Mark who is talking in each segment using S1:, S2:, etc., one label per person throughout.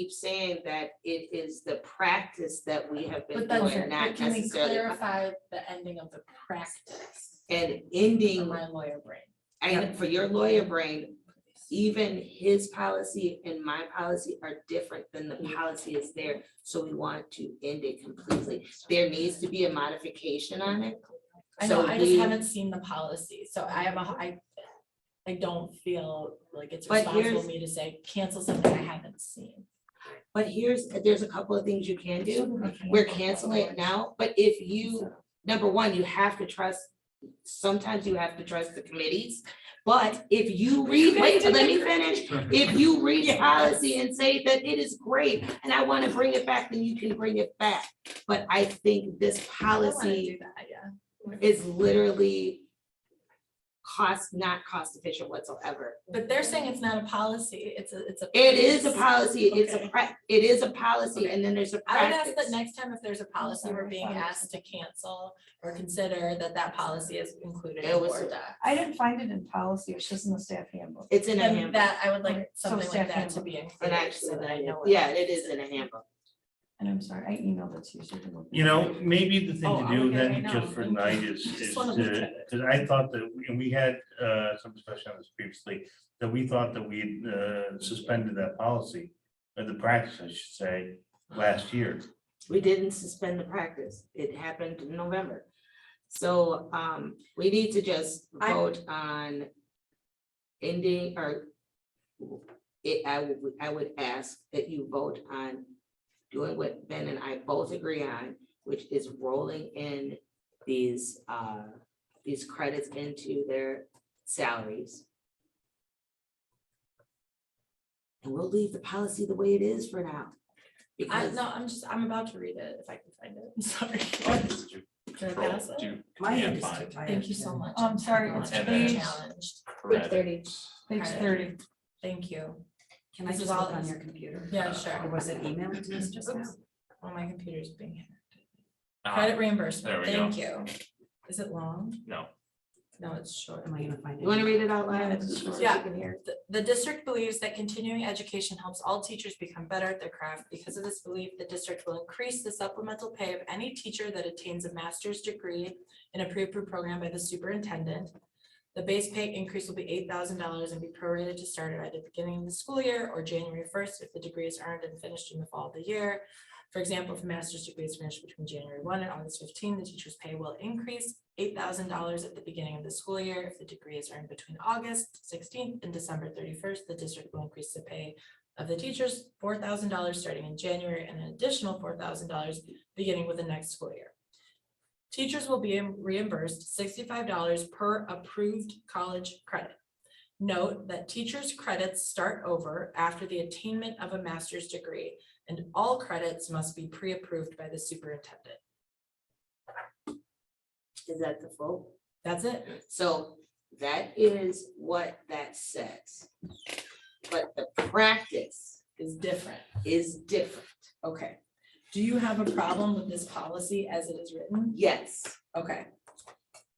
S1: keep saying that it is the practice that we have been
S2: But that's
S1: doing,
S2: it,
S1: not
S2: but can we
S1: necessarily.
S2: clarify the ending of the practice
S1: And
S2: in
S1: ending,
S2: my lawyer brain?
S1: and for your lawyer brain, even his policy and my policy are different than the policy is there. So we want to end it completely. There needs to be a modification on it.
S2: I know,
S1: So
S2: I just
S1: we-
S2: haven't seen the policy, so I have a, I, I don't feel like it's
S1: But
S2: responsible
S1: here's-
S2: of me to say cancel something I haven't seen.
S1: But here's, there's a couple of things you can do. We're canceling it now, but if you number one, you have to trust, sometimes you have to trust the committees. But if you read, wait, let me finish. If you read the policy and say that it is great and I want to bring it back, then you can bring it back. But I think this
S2: I don't wanna
S1: policy
S2: do that, yeah.
S1: is literally cost, not cost efficient whatsoever.
S2: But they're saying it's not a policy, it's a, it's a.
S1: It is a policy, it's a
S2: Okay.
S1: prac, it is a policy and then there's a
S2: I would ask that
S1: practice.
S2: next time if there's a policy we're being asked to cancel or consider that that policy is included
S1: It
S2: in
S1: was-
S2: Word doc.
S3: I didn't find it in policy, it's just in the staff handbook.
S1: It's in a
S2: And
S1: handbook.
S2: that, I would like
S3: So
S2: something like
S3: staff
S2: that to
S3: handbook.
S2: be
S1: And
S2: included,
S1: actually,
S2: so that I know.
S1: yeah, it is in a handbook.
S3: And I'm sorry, I emailed it to you. so you. can look at
S4: You know, maybe
S2: Oh,
S4: the thing to
S2: I'll
S4: do
S2: look at it
S4: then,
S2: right
S4: just
S2: now.
S4: for tonight is,
S2: Just
S4: is
S2: wanna look at
S4: to,
S2: it.
S4: because I thought that, we- and we had, uh, some discussion on this previously, that we thought that we, uh, suspended that policy, or the practice, I should say, last year.
S1: We didn't suspend the practice. It happened in November. So um, we need to just
S2: I-
S1: vote on ending or it, I would, I would ask that you vote on doing what Ben and I both agree on, which is rolling in these uh, these credits into their salaries. And we'll leave the policy the way it is for now.
S2: I,
S1: because-
S2: no, I'm just, I'm about to read it if I can find it, I'm sorry.
S5: Control,
S2: Can I pass it?
S5: do
S3: My hand is
S5: command find,
S3: too tired.
S2: Thank you so much.
S6: Um,
S3: I'm sorry, it's
S2: I'm
S5: page-
S2: Challenged,
S5: correct.
S3: Page thirty.
S2: thank you.
S6: Can I
S2: This is
S6: just
S2: all
S6: look on
S2: us.
S6: your computer?
S5: Uh,
S2: Yeah,
S6: Or
S2: sure.
S6: was it emailed to us just now?
S2: Oops. Oh, my computer's being hacked.
S5: Ah,
S2: Credit
S5: there
S2: reimbursement,
S5: we
S2: thank you. Is it long?
S5: No,
S2: No, it's short.
S6: Am I gonna find it?
S1: You wanna read it out loud?
S2: Yeah. The, the district believes that continuing education helps all teachers become better at their craft. Because of this belief, the district will increase the supplemental pay of any teacher that attains a master's degree in a pre-approved program by the superintendent. The base pay increase will be eight thousand dollars and be prorated to start at either beginning of the school year or January first if the degree is earned and finished in the fall of the year. For example, if a master's degree is finished between January one and August fifteen, the teacher's pay will increase eight thousand dollars at the beginning of the school year. If the degree is earned between August sixteenth and December thirty-first, the district will increase the pay of the teachers four thousand dollars starting in January and an additional four thousand dollars beginning with the next school year. Teachers will be reimbursed sixty-five dollars per approved college credit. Note that teachers' credits start over after the attainment of a master's degree, and all credits must be pre-approved by the superintendent.
S1: Is that the full?
S2: That's it.
S1: So that is what that says. But the practice
S2: Is different.
S1: is different.
S2: Okay. Do you have a problem with this policy as it is written?
S1: Yes,
S2: Okay,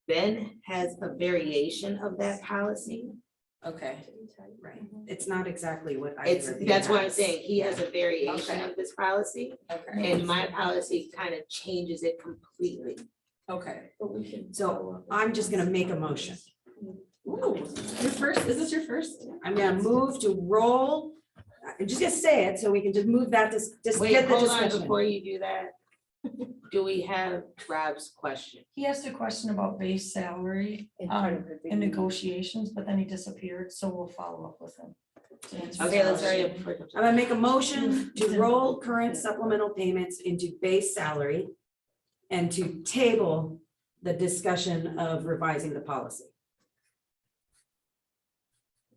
S1: Ben has a variation of that policy.
S2: okay.
S6: Right, it's not exactly what I.
S1: It's,
S6: reviewed
S1: that's what I'm
S6: as.
S1: saying. He has a variation
S2: Okay.
S1: of this policy
S2: Okay,
S1: and my policy kind of changes it completely.
S2: okay.
S6: So I'm just gonna make a motion.
S7: Your first, is this your first?
S6: I'm gonna move to roll, I'm just gonna say it, so we can just move that, just, just
S1: Wait,
S6: get the
S1: hold on,
S6: discussion.
S1: before you do that, do we have Rob's question?
S3: He asked a question about base salary um, and negotiations, but then he disappeared, so we'll follow up with him. to answer
S1: Okay,
S3: his
S1: let's
S3: question.
S1: hurry up.
S6: I'm gonna make a motion to roll current supplemental payments into base salary and to table the discussion of revising the policy.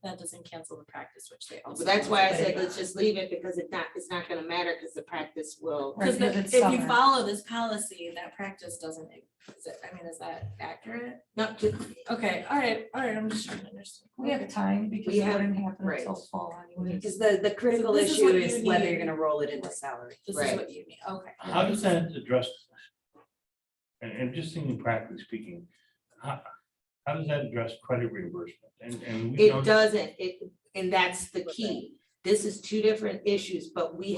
S2: That doesn't cancel the practice, which they also.
S1: So that's why I said, let's just leave it because it's not, it's not gonna matter because the practice will.
S3: Right,
S2: Because
S3: because it's
S2: if you
S3: summer.
S2: follow this policy, that practice doesn't, is it, I mean, is that accurate?
S1: Not
S2: Okay, all right, all right, I'm just trying to understand.
S3: We have time because
S1: We
S3: it
S1: have-
S3: wouldn't happen
S1: right.
S3: until fall anyway.
S6: Because the, the critical
S2: This is what
S6: issue
S2: you
S6: is whether
S2: need.
S6: you're gonna roll it into salary.
S2: This is
S1: Right.
S2: what you mean, okay.
S4: How does that address? And, and just thinking practically speaking, how, how does that address credit reimbursement? And, and we know
S1: It doesn't, it, and that's the key. This is two different issues, but we